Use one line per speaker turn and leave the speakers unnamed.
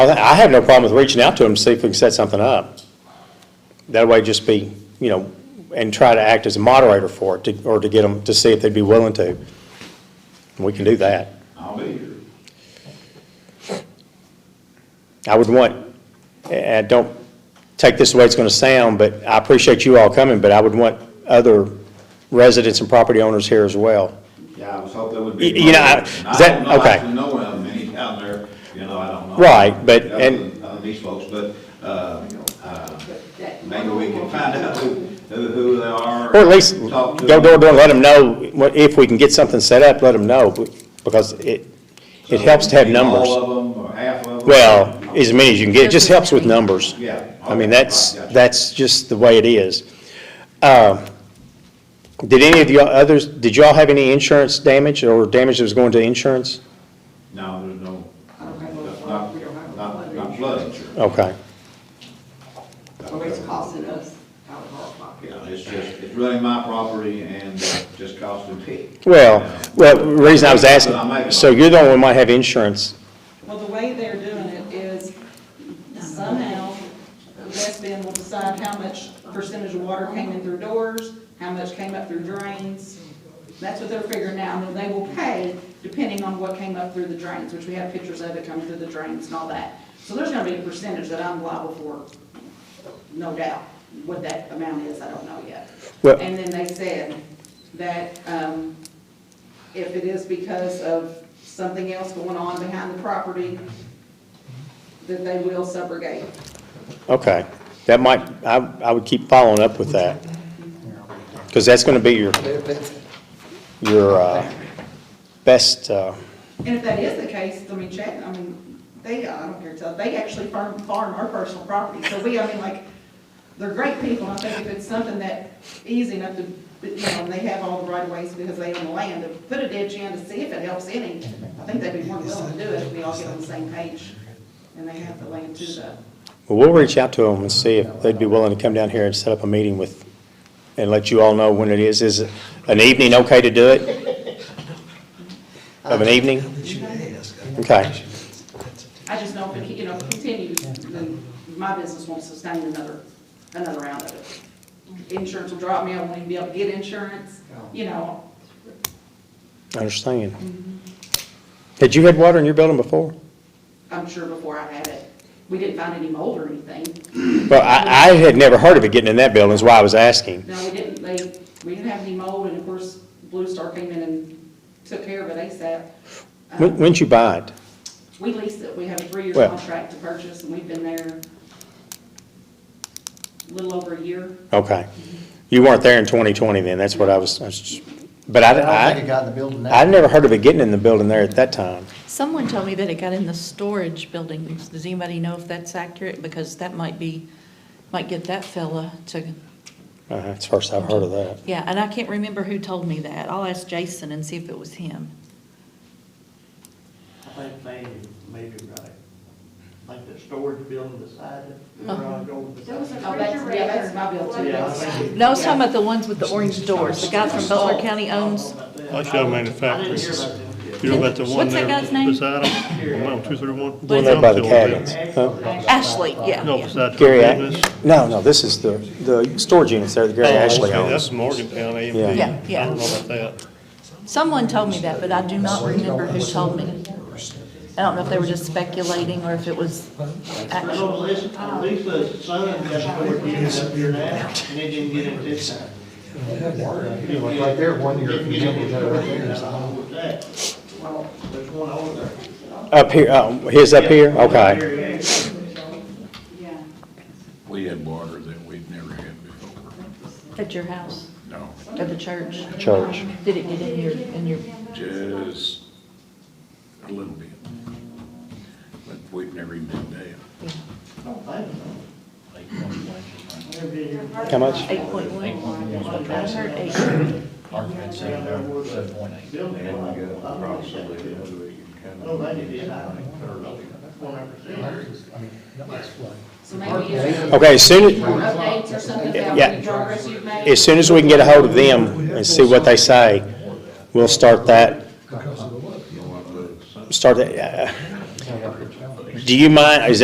I, I have no problem with reaching out to them to see if we can set something up. That way just be, you know, and try to act as a moderator for it, to- or to get them, to see if they'd be willing to. We can do that.
I'll be here.
I would want, and don't take this the way it's going to sound, but I appreciate you all coming, but I would want other residents and property owners here as well.
Yeah, I was hoping that would
Y-
be.
you know, I-
And
is that-
I don't know,
okay.
I don't know how many down there, you know, I don't know.
Right, but-
Other than-
and-
other than These folks, but, uh, uh, maybe we can find out who, who who they are.
Or at least
talk to
go door to door, and let them know, what- if we can get something set up, let them know, because it, it helps to have
So, maybe
numbers.
All of them, or half of them.
Well, as many as you can get, it just helps with numbers.
Yeah.
I mean,
Okay,
that's,
right, gotcha.
that's just the way it is. Uh, Did any of y'all others, did y'all have any insurance damage or damage that was going to insurance?
No, there's no,
I don't have no flood, we don't have
not,
no
not, not
flood.
flood insurance.
Okay,
So it's costing us out of our pocket.
Yeah, it's just, it's really my property and uh, just costing me.
well, well, the reason I was
I'm making
asking,
a-
so you're the one who might have insurance,
Well, the way they're doing it is somehow West Bend will decide how much percentage of water came in through doors, how much came up through drains. That's what they're figuring out, and then they will pay depending on what came up through the drains, which we have pictures of it coming through the drains and all that. So there's gonna be a percentage that I'm liable for, no doubt. What that amount is, I don't know yet.
Well-
And then they said that, um, if it is because of something else going on behind the property, that they will subrogate.
okay. That might, I, I would keep following up with that. Because that's gonna be your, your, uh, best, uh,
And if that is the case, I mean, check, I mean, they, I don't care, tell, they actually farm, farm our personal property, so we, I mean, like, they're great people, I think if it's something that easy enough to, you know, and they have all the right of ways because they own the land, to put a ditch in to see if it helps any, I think they'd be more than willing to do it if we all get on the same page, and they have the land to the,
Well, we'll reach out to them and see if they'd be willing to come down here and set up a meeting with, and let you all know when it is. Is an evening okay to do it? Of an evening? Okay.
I just know if it, you know, continues, then my business won't sustain another, another round of it. Insurance will drop me, I won't even be able to get insurance, you know,
I understand. Had you had water in your building before?
I'm sure before I had it, we didn't find any mold or anything.
Well, I, I had never heard of it getting in that building, is why I was asking.
No, we didn't, they, we didn't have any mold, and of course, Blue Star came in and took care of it ASAP.
When,
Um,
when'd you buy it?
We leased it, we have a three-year
Well-
contract to purchase, and we've been there a little over a year.
Okay. You weren't there in 2020 then, that's what I was, I was just- but
I don't think it
I, I,
got in the building
I'd
now.
never heard of it getting in the building there at that time.
Someone told me that it got in the storage buildings. Does anybody know if that's accurate? Because that might be, might get that fella to,
Uh, it's the first I've heard of that.
yeah, and I can't remember who told me that. I'll ask Jason and see if it was him.
I think maybe, maybe right. Like the storage building beside it, where I go beside it.
Oh, that's, yeah, that's my bill too.
Yeah, I think it-
No, I was talking about the ones with the orange doors, the guy from Butler County owns.
That's Young
I
Manufacturers.
didn't hear about them.
You know about the one
What's that
there
guy's name?
beside him? One oh two three one?
The one there by the Uh-huh. cabins, huh?
Ashley, yeah,
No,
yeah.
beside the
Gary, Ash-
business.
no, no, this is the, the storage units there that Gary
Oh,
Ashley
okay,
owns.
That's Morgantown
Yeah.
AMD.
Yeah, yeah.
I don't know about that.
Someone told me that, but I do not remember who told me. I don't know if they were just speculating or if it was
I
actual.
know Lisa,
Oh.
Lisa's son got stored in it up here now, and they didn't get it this time.
Right there, one year,
Didn't get it.
that right there.
I don't know what that. There's one over there.
Up here, oh, his up here, okay.
Here, yeah.
Yeah.
We had water that we'd never had before,
At your house,
no,
at the church?
Church.
Did it get in your, in your,
just a little bit. But we've never even been there.
I don't think so. Never did hear about
How much?
eight point one? I heard eight.
that building.
And
I
we
don't
got
think that
approximately,
did.
we can kind
No, Oh, they did, I don't think, one hundred percent.
So maybe if
Okay, as soon, as-
updates or something about
Yeah.
the progress you've made.
as soon as we can get a hold of them and see what they say, we'll start that,
of,
start that, uh, do you mind, is